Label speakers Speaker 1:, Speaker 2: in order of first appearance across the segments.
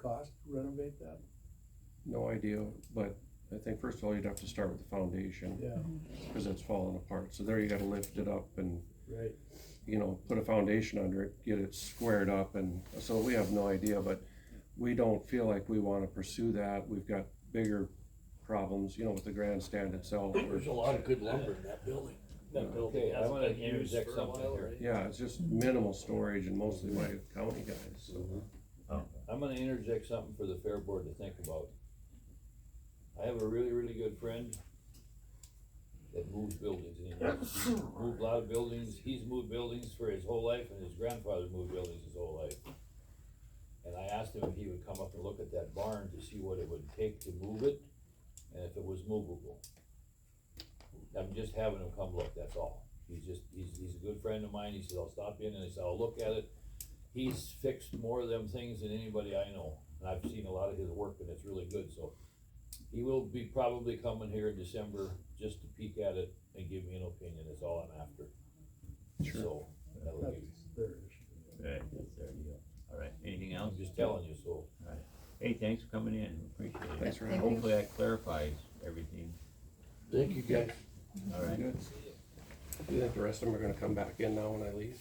Speaker 1: cost to renovate that?
Speaker 2: No idea, but I think first of all, you'd have to start with the foundation,
Speaker 1: Yeah,
Speaker 2: cause it's falling apart, so there you gotta lift it up and,
Speaker 1: right.
Speaker 2: you know, put a foundation under it, get it squared up, and, so we have no idea, but we don't feel like we wanna pursue that, we've got bigger problems, you know, with the grandstand itself, or-
Speaker 3: There's a lot of good lumber in that building.
Speaker 4: That building
Speaker 5: Okay, I
Speaker 4: hasn't
Speaker 5: wanna
Speaker 4: been used
Speaker 5: interject
Speaker 4: for a
Speaker 5: something
Speaker 4: while,
Speaker 5: here.
Speaker 4: right?
Speaker 2: yeah, it's just minimal storage and mostly by county guys, so.
Speaker 6: Mm-hmm.
Speaker 5: I'm gonna interject something for the fair board to think about. I have a really, really good friend that moves buildings, and he moves- he's moved a lot of buildings, he's moved buildings for his whole life, and his grandfather moved buildings his whole life. And I asked him if he would come up and look at that barn to see what it would take to move it, and if it was movable. I'm just having him come look, that's all, he's just, he's, he's a good friend of mine, he said, I'll stop in, and I said, I'll look at it, he's fixed more of them things than anybody I know, and I've seen a lot of his work, and it's really good, so. He will be probably coming here in December, just to peek at it and give me an opinion, is all I'm after.
Speaker 2: Sure.
Speaker 5: So, that would
Speaker 1: That's
Speaker 5: be,
Speaker 1: their issue.
Speaker 7: Right, that's their deal. All right, anything else?
Speaker 5: I'm just telling you, so,
Speaker 7: Hey, thanks for coming in, appreciate it.
Speaker 2: Thanks for
Speaker 8: Thank
Speaker 2: having
Speaker 8: you.
Speaker 7: Hopefully that clarifies everything,
Speaker 3: Thank you guys.
Speaker 7: all right?
Speaker 2: Good. Do you think the rest of them are gonna come back in now when I leave?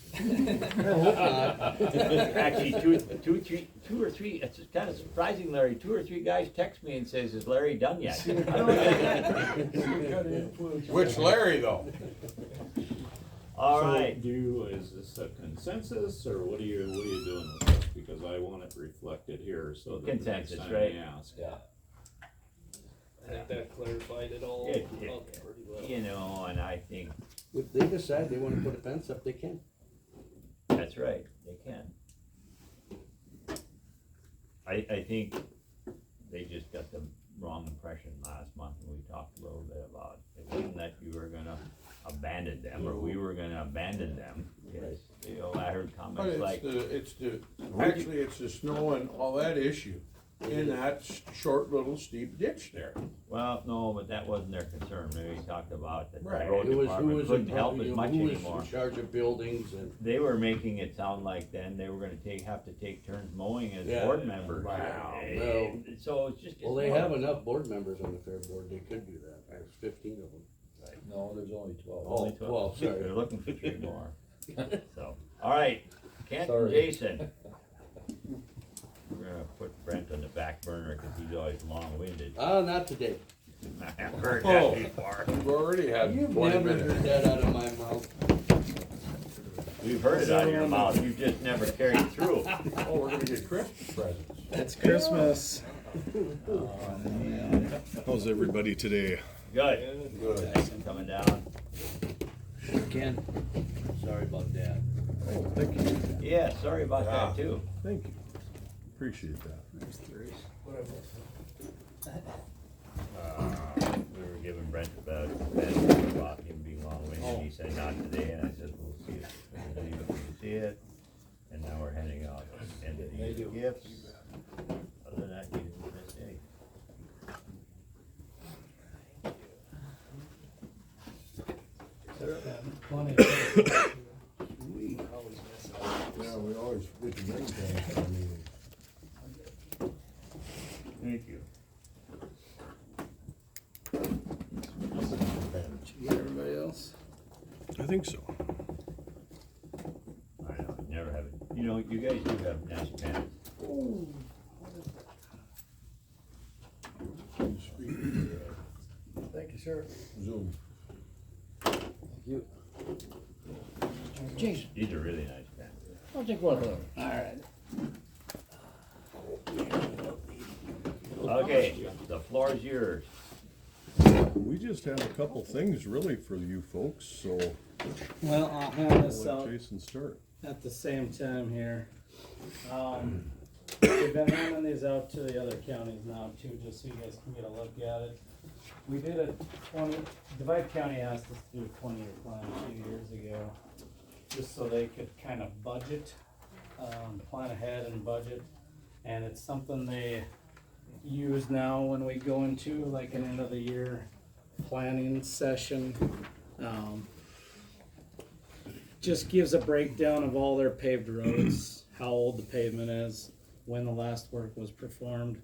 Speaker 7: Actually, two, two, three, two or three, it's kind of surprising, Larry, two or three guys text me and says, is Larry done yet?
Speaker 1: Which
Speaker 3: Larry though?
Speaker 7: All
Speaker 4: So
Speaker 7: right,
Speaker 4: Do, you- is this a consensus, or what are you, what are you doing with this? Because I want it reflected here, so that the next
Speaker 7: Consensus,
Speaker 4: time
Speaker 7: right?
Speaker 4: we ask.
Speaker 5: yeah.
Speaker 4: I think
Speaker 5: that clarified it all
Speaker 7: Yeah, yeah. up
Speaker 5: pretty
Speaker 7: you know, and I think,
Speaker 9: If they decide they wanna put a fence up, they can.
Speaker 7: that's right, they can. I, I think they just got the wrong impression last month, and we talked a little bit about, it wasn't that you were gonna abandon them, or we were gonna abandon them. It's, You know, I heard
Speaker 3: But
Speaker 7: comments
Speaker 3: it's
Speaker 7: like,
Speaker 3: the, it's the,
Speaker 7: Where'd you-
Speaker 3: actually, it's the snow and all that issue in that s- short little steep ditch there.
Speaker 7: Well, no, but that wasn't their concern, maybe he talked about that the
Speaker 3: Right.
Speaker 7: road
Speaker 9: It was, who
Speaker 7: department
Speaker 9: was, in
Speaker 7: couldn't help
Speaker 9: charge,
Speaker 7: as
Speaker 9: you know,
Speaker 7: much
Speaker 9: who was
Speaker 7: anymore.
Speaker 9: in charge of buildings and,
Speaker 7: They were making it sound like then they were gonna take, have to take turns mowing as
Speaker 9: Yeah.
Speaker 7: board members.
Speaker 3: Wow.
Speaker 7: Eh, So it's just.
Speaker 9: well,
Speaker 7: it's
Speaker 9: they
Speaker 7: not-
Speaker 9: have enough board members on the fair board, they could do that, there's fifteen of them.
Speaker 5: No, there's only twelve.
Speaker 9: Oh,
Speaker 7: only 12.
Speaker 9: well, sorry.
Speaker 7: They're looking for three more, so, alright, Kent and
Speaker 5: Sorry.
Speaker 7: Jason. We're gonna put Brent on the back burner, cause he's always long-winded,
Speaker 9: Ah, not today,
Speaker 7: I have heard
Speaker 3: Oh.
Speaker 7: that before,
Speaker 3: We've already
Speaker 9: you've
Speaker 3: had twenty
Speaker 9: never heard
Speaker 3: minutes.
Speaker 9: that out of my mouth.
Speaker 7: we've heard it out of your mouth, you've just never carried through.
Speaker 3: Oh, we're gonna get Christmas presents.
Speaker 6: It's Christmas. How's everybody today?
Speaker 7: Uh, Good.
Speaker 3: Good.
Speaker 7: Jason coming down.
Speaker 9: Ken, sorry about that.
Speaker 7: Yeah, sorry about that too.
Speaker 6: Thank you. Appreciate that. There's three.
Speaker 7: Uh, We were giving Brent a bad, bad about him being long winded. He said not today and I said, we'll see it. And then he looked to see it. And now we're handing out end of the year gifts. Other than that, he didn't miss any.
Speaker 6: Yeah, we always get the main thing.
Speaker 7: Thank you.
Speaker 6: Everybody else? I think so.
Speaker 7: I know, I never have it. You know, you guys do have nice pens.
Speaker 3: Speaking
Speaker 1: Thank you, sir.
Speaker 3: of Zoom.
Speaker 1: Jason,
Speaker 7: These are really nice pens.
Speaker 1: I'll take one of them. All right.
Speaker 7: Okay, the floor is yours.
Speaker 6: We just have a couple things really for you folks, so
Speaker 10: Well, I'll hand
Speaker 6: I'll
Speaker 10: this
Speaker 6: let
Speaker 10: out
Speaker 6: Jason start.
Speaker 10: at the same time here. Um, we've been handing these out to the other counties now too, just so you guys can get a look at it. We did a twenty, Divide County asked us to do a twenty-year plan a few years ago, just so they could kind of budget, um, plan ahead and budget. And it's something they use now when we go into like an end of the year planning session. Um, just gives a breakdown of all their paved roads, how old the pavement is, when the last work was performed